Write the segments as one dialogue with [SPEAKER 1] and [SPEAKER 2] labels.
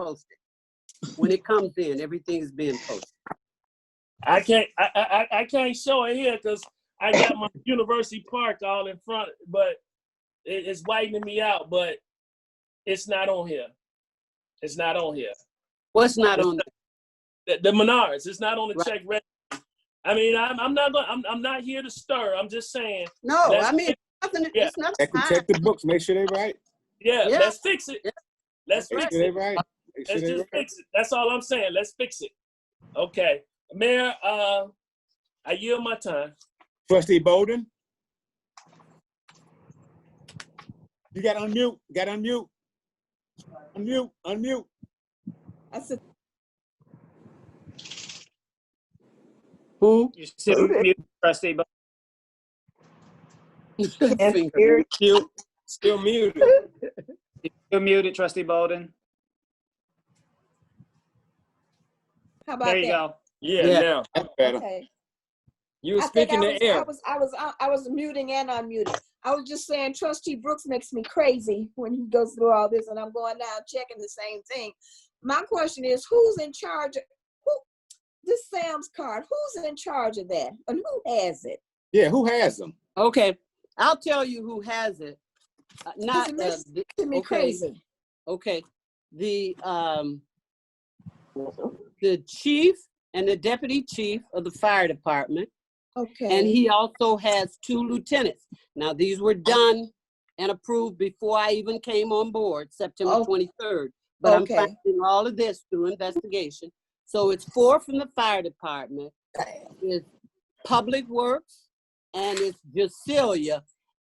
[SPEAKER 1] posted. When it comes in, everything's being posted.
[SPEAKER 2] I can't I I, I- I can't show it here because I got my University Park all in front, but it, it's whitening me out. But it's not on here. It's not on here.
[SPEAKER 1] What's not on, there?
[SPEAKER 2] The, the Menards. It's not on the
[SPEAKER 1] Right.
[SPEAKER 2] check register. I mean, I'm, I'm not going. I'm, I'm not here to stir. I'm just saying.
[SPEAKER 1] no, I
[SPEAKER 2] That's-
[SPEAKER 1] mean, nothing,
[SPEAKER 2] Yeah.
[SPEAKER 1] it's nothing.
[SPEAKER 3] Check, the- check
[SPEAKER 4] Ah.
[SPEAKER 3] the books, make sure they right.
[SPEAKER 2] Yeah,
[SPEAKER 1] Yeah.
[SPEAKER 2] let's fix it.
[SPEAKER 1] Yeah.
[SPEAKER 2] Let's
[SPEAKER 3] Make
[SPEAKER 2] fix
[SPEAKER 3] sure they
[SPEAKER 2] it.
[SPEAKER 3] right. Make sure
[SPEAKER 2] Let's
[SPEAKER 3] they
[SPEAKER 2] just
[SPEAKER 3] right.
[SPEAKER 2] fix it. That's all I'm saying. Let's fix it. Okay, Mayor. Uh, I yield my time.
[SPEAKER 3] Trustee Bolden? You got unmute, got unmute. Unmute, unmute.
[SPEAKER 4] I said,
[SPEAKER 1] Who?
[SPEAKER 5] You still mute, trustee, but
[SPEAKER 1] Finger.
[SPEAKER 5] you still muted. Still muted, trustee Bolden.
[SPEAKER 4] how about
[SPEAKER 5] There you
[SPEAKER 4] that?
[SPEAKER 5] go.
[SPEAKER 2] Yeah.
[SPEAKER 1] Yeah.
[SPEAKER 2] Now
[SPEAKER 3] That's better.
[SPEAKER 4] Okay.
[SPEAKER 5] You
[SPEAKER 4] I think I was, I was, I was, I I was muting and unmuting. I was just saying trustee Brooks makes me crazy when he goes through all this and I'm going now checking the same thing. My question is, who's in charge? of Who, this Sam's card, who's in charge of that and who has it?
[SPEAKER 3] Yeah, who has them?
[SPEAKER 1] Okay, I'll tell you who has it. Uh, Not,
[SPEAKER 4] it
[SPEAKER 1] uh,
[SPEAKER 4] makes-
[SPEAKER 1] the-
[SPEAKER 4] To me
[SPEAKER 1] Okay.
[SPEAKER 4] crazy.
[SPEAKER 1] okay, the, um, the chief and the deputy chief of the fire department
[SPEAKER 4] Okay.
[SPEAKER 1] And he also has two lieutenants. Now, these were done and approved before I even came on board, September
[SPEAKER 4] Oh.
[SPEAKER 1] twenty-third. But I'm
[SPEAKER 4] Okay.
[SPEAKER 1] finding all of this through investigation. So it's four from the fire department, it's Public Works, and it's Jacilia.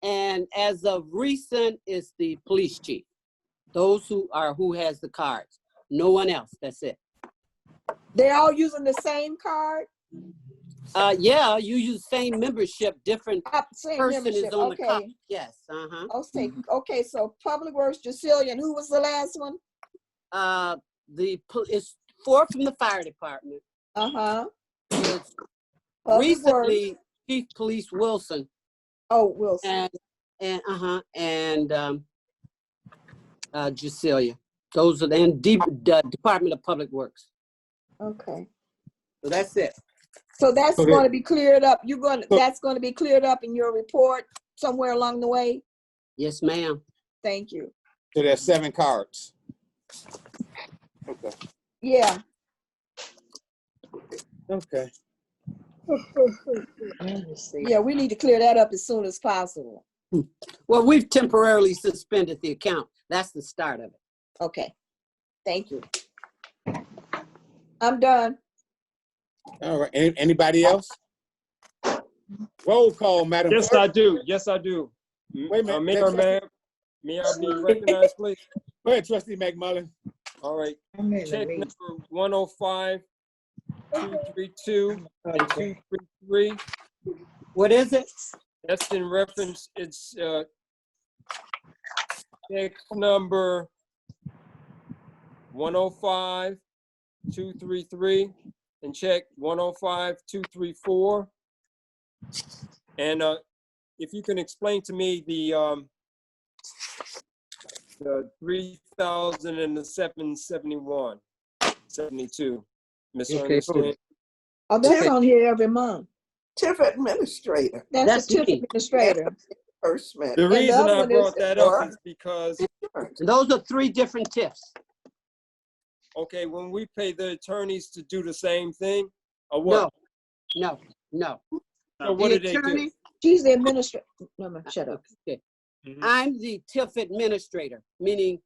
[SPEAKER 1] And as of recent, it's the police chief. Those who are, who has the cards. No one else, that's it.
[SPEAKER 4] They're all using the same card?
[SPEAKER 1] Uh, yeah, you use same membership, different
[SPEAKER 4] Uh, Same
[SPEAKER 1] person
[SPEAKER 4] membership,
[SPEAKER 1] is on the cop.
[SPEAKER 4] okay.
[SPEAKER 1] Yes, uh-huh.
[SPEAKER 4] Okay, okay, so Public Works, Jacillian, who was the last one?
[SPEAKER 1] uh, the, pol- it's four from the fire department.
[SPEAKER 4] Uh-huh.
[SPEAKER 1] It's
[SPEAKER 4] Public Works.
[SPEAKER 1] Recently, Chief Police Wilson
[SPEAKER 4] Oh, Wilson.
[SPEAKER 1] and, and, uh-huh, and, um, uh, Jucelia. Those are, the- and Deep, the Department of Public Works.
[SPEAKER 4] Okay.
[SPEAKER 1] So that's it.
[SPEAKER 4] So that's
[SPEAKER 3] Okay.
[SPEAKER 4] going to be cleared up. You're going, to
[SPEAKER 3] So-
[SPEAKER 4] that's going to be cleared up in your report somewhere along the way?
[SPEAKER 1] Yes, ma'am.
[SPEAKER 4] Thank you.
[SPEAKER 3] So there's seven cards. Okay.
[SPEAKER 4] Yeah.
[SPEAKER 3] Okay.
[SPEAKER 4] Yeah, we need to clear that up as soon as possible.
[SPEAKER 1] Well, we've temporarily suspended the account. That's the start of it.
[SPEAKER 4] Okay. Thank you. I'm done.
[SPEAKER 3] All right. An- Anybody else? Roll call, Madam
[SPEAKER 6] Yes, I
[SPEAKER 3] Clerk.
[SPEAKER 6] do. Yes, I do. M-
[SPEAKER 3] Wait a minute.
[SPEAKER 6] uh, Mayor, ma'am, may I be recognized, please?
[SPEAKER 3] Go ahead, Trustee McMullen.
[SPEAKER 6] All right. Check number one oh five, two three two, and two three three.
[SPEAKER 1] What is it?
[SPEAKER 6] That's in reference, it's, uh, check number one oh five, two three three, and check one oh five, two three four. And, uh, if you can explain to me the, um, the three thousand and the seven seventy-one, seventy-two, Ms.
[SPEAKER 1] Okay, hold
[SPEAKER 6] Ernestine.
[SPEAKER 4] Oh, that's
[SPEAKER 1] Okay.
[SPEAKER 4] on here every month.
[SPEAKER 7] TIF administrator,
[SPEAKER 4] That's
[SPEAKER 1] That's
[SPEAKER 4] the TIF
[SPEAKER 1] me.
[SPEAKER 4] administrator.
[SPEAKER 7] reimbursement,
[SPEAKER 6] The
[SPEAKER 4] the
[SPEAKER 6] reason
[SPEAKER 4] other
[SPEAKER 6] I
[SPEAKER 4] one is-
[SPEAKER 6] brought that up
[SPEAKER 7] or-
[SPEAKER 6] is because
[SPEAKER 7] insurance.
[SPEAKER 1] Those are three different tips.
[SPEAKER 6] okay, when we pay the attorneys to do the same thing, or
[SPEAKER 1] No,
[SPEAKER 6] what?
[SPEAKER 1] no, no.
[SPEAKER 6] So what
[SPEAKER 1] The
[SPEAKER 6] do they do?
[SPEAKER 1] attorney-
[SPEAKER 4] She's the administrator. No, no, shut up. Mm-hmm.
[SPEAKER 1] Okay.
[SPEAKER 6] Mhm.
[SPEAKER 1] I'm the TIF administrator, meaning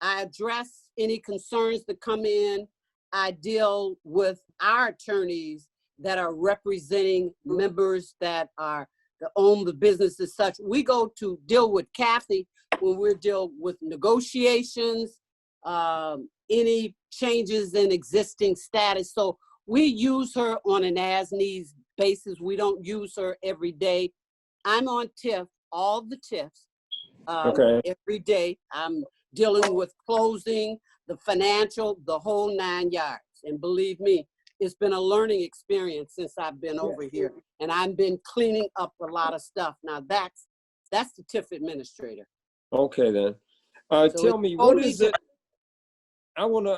[SPEAKER 1] I address any concerns that come in. I deal with our attorneys that are representing members that are, that own the business as such. We go to deal with Kathy when we deal with negotiations, um, any changes in existing status. So we use her on an as-needs basis. We don't use her every day. I'm on TIF, all the TIFs. um,
[SPEAKER 6] Okay.
[SPEAKER 1] Every day. I'm dealing with closing, the financial, the whole nine yards. And believe me, it's been a learning experience since I've been over here. And I've been cleaning up a lot of stuff. Now that's, that's the TIF administrator.
[SPEAKER 6] Okay then. Uh,
[SPEAKER 1] So
[SPEAKER 6] tell
[SPEAKER 1] it's
[SPEAKER 6] me, what
[SPEAKER 1] only
[SPEAKER 6] is it? I want to